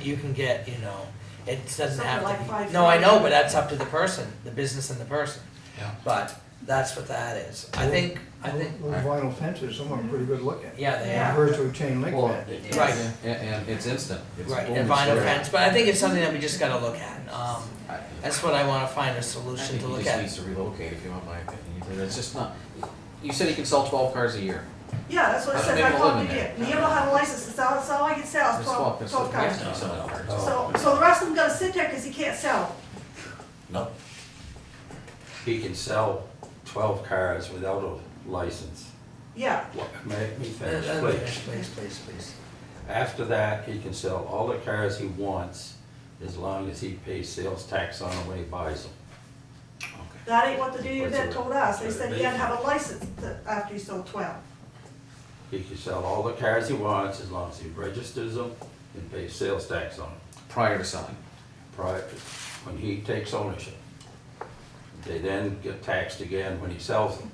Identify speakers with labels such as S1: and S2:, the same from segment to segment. S1: you can get, you know, it doesn't
S2: Something
S1: have
S2: like
S1: to be,
S2: five
S1: no, I know,
S2: thousand.
S1: but that's up to the person, the business and the person.
S3: Yeah.
S1: But that's what that is. I think, I think,
S4: Those vinyl fences, some of them are pretty good looking.
S1: yeah, they
S2: Yeah.
S1: are,
S4: Compared to a chain link
S3: Well,
S4: fence.
S3: it-
S1: Right.
S3: And, and it's instant. It's
S1: right,
S3: boom,
S1: and vinyl
S3: it's there.
S1: fence, but I think it's something that we just gotta look at. Um,
S3: I-
S1: that's what I wanna find a
S3: I
S1: solution
S3: think
S1: to
S3: he
S1: look
S3: just
S1: at.
S3: needs to relocate if you want my opinion. It's just not, you said he can sell twelve cars a year.
S2: Yeah, that's what I
S3: That's
S2: said,
S3: what
S2: I
S3: they
S2: called
S3: live
S2: you,
S3: in there.
S2: Neil don't have a license, that's all, that's all I can sell,
S3: There's
S2: is twelve,
S3: there's
S2: Oh, twelve
S3: we have
S2: cars.
S3: to be selling cars.
S5: Oh.
S2: So, so the rest of them gotta sit there, cause he can't sell.
S3: No,
S5: he can sell twelve cars without a license.
S2: Yeah,
S5: What- Make me
S1: Uh, uh,
S5: finish, please.
S1: Please, please, please.
S5: After that, he can sell all the cars he wants, as long as he pays sales tax on them when he buys them.
S3: okay.
S2: that ain't what the dude
S5: What's
S2: event
S5: it-
S2: told us, they
S5: what's it
S2: said he
S5: be?
S2: had to have a license to- after he sold twelve.
S5: He can sell all the cars he wants, as long as he registers them and pays sales tax on them,
S3: Prior to selling.
S5: prior, to- when he takes ownership. They then get taxed again when he sells them.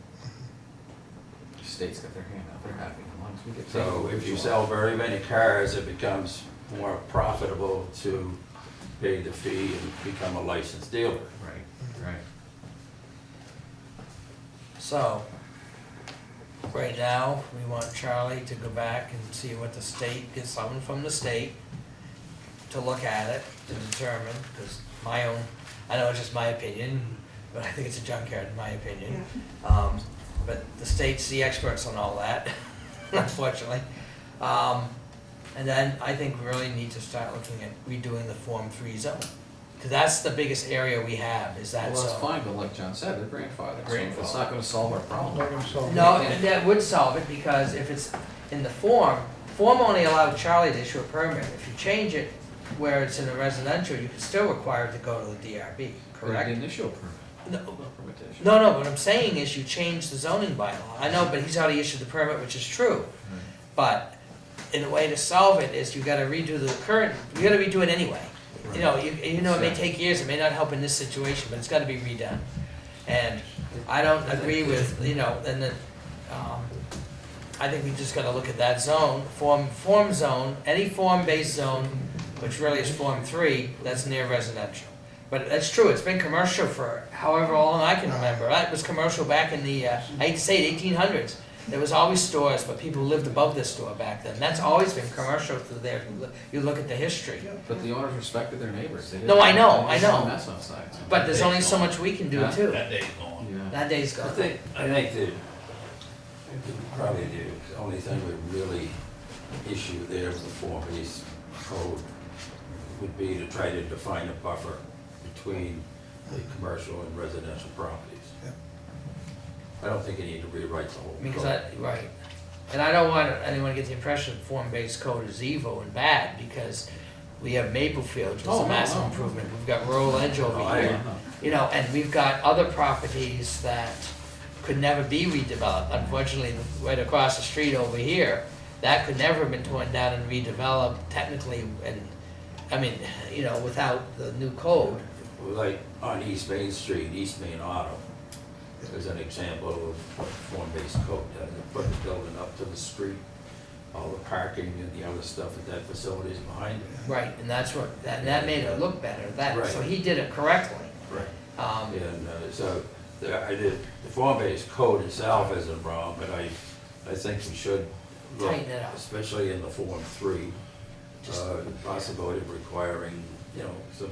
S3: The State's got their hand out, they're happy, as long as we get.
S5: So
S3: paid.
S5: if you sell very many cars, it becomes more profitable to pay the fee and become a licensed dealer.
S3: Right, right.
S1: So, right now, we want Charlie to go back and see what the state, get someone from the state to look at it, to determine, because my own, I know it's just my opinion, but I think it's a junkyard, in my opinion. Um, but the state's the experts on all that, unfortunately. Um, and then I think we really need to start looking at redoing the Form Three zone, because that's the biggest area we have, is
S3: Well,
S1: that
S3: that's
S1: zone.
S3: fine, but like John said, they're grandfathered, so it's
S1: Grandfathered.
S3: not gonna solve our
S4: Like
S3: problem.
S4: them sold.
S1: No, and that would solve it, because if it's in the form, form only allowed Charlie to issue a permit. If you change it where it's in a residential, you can still require it to go to the DRB,
S3: They
S1: correct?
S3: didn't issue a permit.
S1: No,
S3: No permit to issue.
S1: no, no, what I'm saying is you change the zoning bylaw. I know, but he's already issued the permit, which is true.
S3: Right.
S1: But in a way to solve it is you gotta redo the current, you gotta redo it anyway. You know, you, you know, it may take years, it may not help in this situation, but it's gotta be redone. And I don't agree with, you know, and the, um, I think we just gotta look at that zone, form, form zone, any form-based zone, which really is form three, that's near residential. But that's true, it's been commercial for however long I can remember, That was commercial back in the, uh, I hate to say it, eighteen hundreds. There was always stores, but people lived above this store back then, that's always been commercial through there, If you look- you look at the history.
S3: But the owners respected their neighbors, they didn't.
S1: No, I know,
S3: they
S1: I
S3: didn't
S1: know.
S3: mess outside. so-
S1: But there's only so much we can do
S3: Huh?
S1: too,
S6: day's gone.
S3: Yeah.
S1: that day's
S5: I
S1: gone.
S5: think, I think the, probably the only thing we really issue there with the Form Base code would be to try to define a buffer between the commercial and residential properties. I don't think you need to rewrite the whole.
S1: Because
S5: code.
S1: I, right, and I don't want anyone to get the impression form-based code is evil and bad, because we have Maplefield, which is
S3: Oh,
S1: a
S3: no,
S1: massive
S3: no. Oh,
S1: improvement, we've got Rural Edge
S5: No,
S1: over
S5: I-
S1: here. You know, and we've got other properties that could never be redeveloped, unfortunately, right across the street over here, that could never have been torn down and redeveloped technically, and, I mean, you know, without the new code.
S5: like on East Main Street, East Main Auto, is an example of what form-based code does. It put the building up to the street, all the parking and the other stuff at that facility is behind it.
S1: Right, and that's what, that, that made it look better, that, so
S5: Right.
S1: he did it correctly.
S5: Right.
S1: Um,
S5: And uh, so, the- I did, the form-based code itself isn't wrong, but I, I think we should look,
S1: Tighten it up.
S5: especially in the Form Three,
S1: Just-
S5: uh, the possibility of requiring, you know, some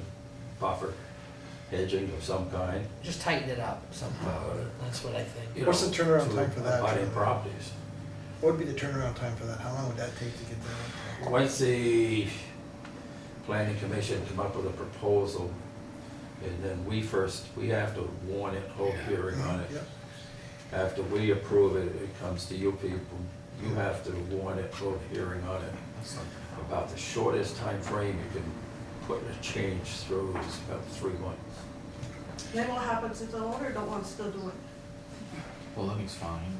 S5: buffer hedging of some kind.
S1: just tighten it up somehow, that's what I think.
S5: you
S7: What's
S5: know,
S7: the turnaround
S5: to
S7: time for that?
S5: abutting properties.
S7: What would be the turnaround time for that? How long would that take to get that?
S5: Once the planning commission come up with a proposal, and then we first, we have to warn it, hold a hearing on it.
S7: Yep.
S5: After we approve it, it comes to you people, you have to warn it, hold a hearing on it.
S3: That's not-
S5: About the shortest time frame you can put a change through is about three months.
S2: then what happens if the owner don't want to still do it?
S3: Well, then he's fine.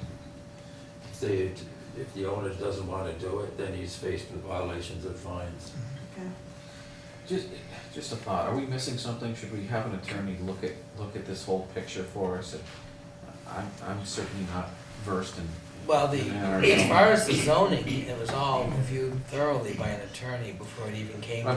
S5: If the- If the owner doesn't want to do it, then he's faced with violations and fines.
S2: Okay.
S3: Just, just a thought, are we missing something? Should we have an attorney look at, look at this whole picture for us? I'm, I'm certainly not versed in,
S1: Well, the,
S3: Yeah.
S1: as far as the zoning, it was all reviewed thoroughly by an attorney before it even came to